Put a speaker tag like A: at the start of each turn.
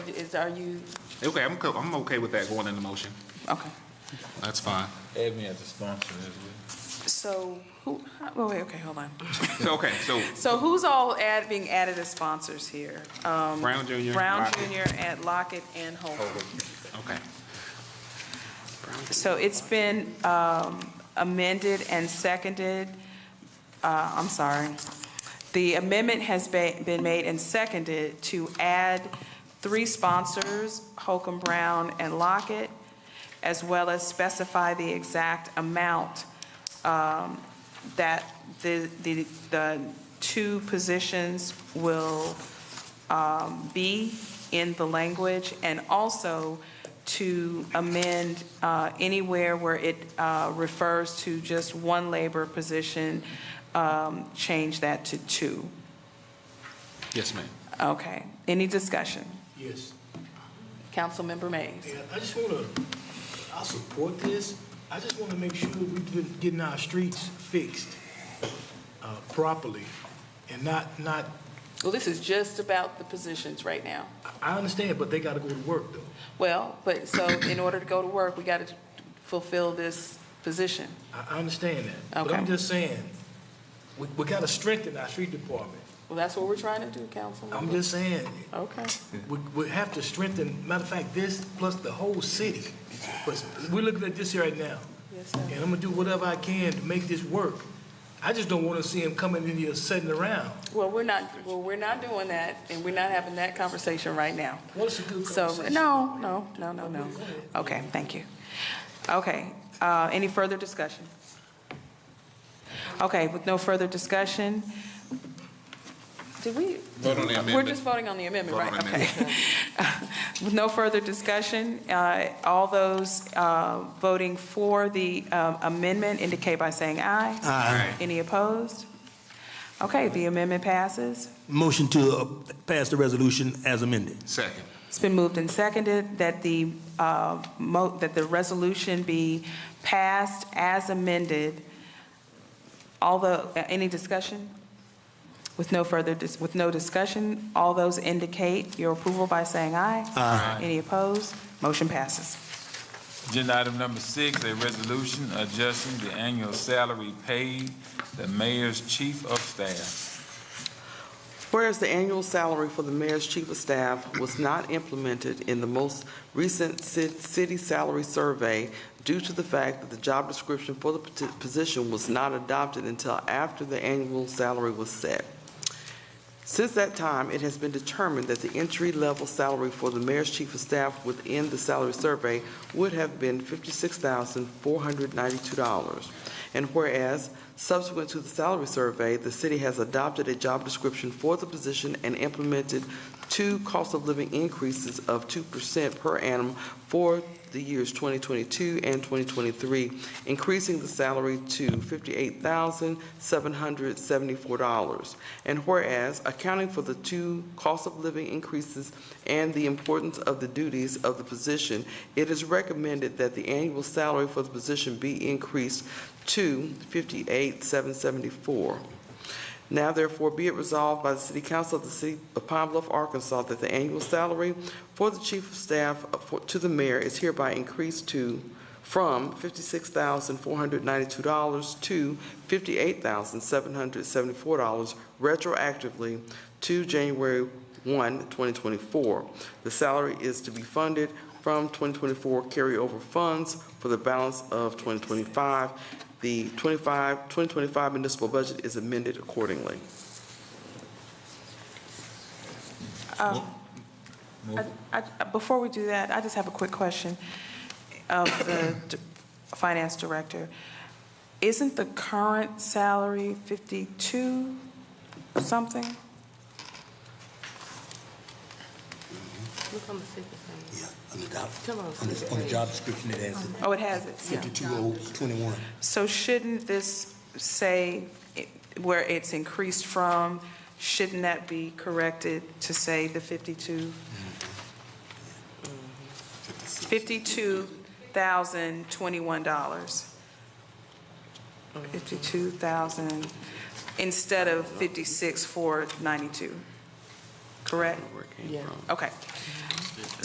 A: Is, are you,
B: Okay, I'm, co- I'm okay with that going in the motion.
A: okay.
B: That's fine.
C: Add me as a sponsor as well.
A: So, who, oh, wait, okay, hold on.
B: Okay, so
A: So who's all add, being added as sponsors here? Um,
B: Brown Junior.
A: Brown Junior, and Lockett, and Holcomb.
B: Okay.
A: So it's been um, amended and seconded, uh, I'm sorry. The amendment has be- been made and seconded to add three sponsors, Holcomb Brown and Lockett, as well as specify the exact amount um, that the, the, the two positions will be in the language, and also to amend uh, anywhere where it uh, refers to just one labor position, um, change that to two.
B: Yes, ma'am.
A: Okay. Any discussion?
D: Yes,
A: Councilmember Mays?
D: and I just want to, I support this. I just want to make sure we're getting our streets fixed uh, properly and not, not,
A: Well, this is just about the positions right now.
D: I understand, but they got to go to work though.
A: Well, but, so in order to go to work, we got to fulfill this position.
D: I I understand that. But I'm
A: Okay.
D: just saying, we, we got to strengthen our street department.
A: Well, that's what we're trying to do,
D: I'm
A: Councilmember.
D: just saying,
A: Okay.
D: we, we have to strengthen, matter of fact, this plus the whole city. But we're looking at this here right now.
A: Yes, sir.
D: And I'm gonna do whatever I can to make this work. I just don't want to see him coming in here sitting around.
A: Well, we're not, well, we're not doing that, and we're not having that conversation right now.
D: Well, it's a good
A: So,
D: conversation.
A: no, no, no, no, no. Okay, thank you. Okay, uh, any further discussion? Okay, with no further discussion, did we?
B: Vote on the
A: We're
B: amendment.
A: just voting on the amendment,
B: Vote on
A: right?
B: the
A: Okay. With no further discussion, uh, all those uh, voting for the um, amendment indicate by saying aye.
B: Aye.
A: Any opposed? Okay, the amendment passes.
E: Motion to uh, pass the resolution as amended.
B: Second.
A: It's been moved and seconded that the, uh, mo- that the resolution be passed as amended. All the, any discussion? With no further, dis- with no discussion, all those indicate your approval by saying aye. Aye. Any opposed? Motion passes.
C: Agenda item number six, a resolution adjusting the annual salary paid the mayor's chief of staff.
F: Whereas the annual salary for the mayor's chief of staff was not implemented in the most recent ci- city salary survey due to the fact that the job description for the pati- position was not adopted until after the annual salary was set. Since that time, it has been determined that the entry-level salary for the mayor's chief of staff within the salary survey would have been $56,492. And whereas Subsequent to the salary survey, the city has adopted a job description for the position and implemented two cost of living increases of 2% per annum for the years 2022 and 2023, increasing the salary to $58,774. And whereas, accounting for the two cost of living increases and the importance of the duties of the position, it is recommended that the annual salary for the position be increased to 58,774. Now therefore be it resolved by the City Council of the City of Pine Bluff, Arkansas, that the annual salary for the Chief of Staff uh, for- to the Mayor is hereby increased to, from $56,492 to $58,774 retroactively to January 1, 2024. The salary is to be funded from 2024 carryover funds for the balance of 2025. The 25, 2025 municipal budget is amended accordingly.
A: I- I- Before we do that, I just have a quick question of the d- finance director. Isn't the current salary 52 something?
G: Look on the second page.
H: Yeah, on the job,
G: Come on,
H: on
G: sis,
H: the, on the
G: wait.
H: job description, it has it,
A: Oh, it has it. Yeah.
H: fifty-two oh twenty-one.
A: So shouldn't this say it- where it's increased from, shouldn't that be corrected to say the 52? $52,021. 52,000 instead of 56,492, correct?
F: Where it came
G: Yeah.
F: from.
A: Okay,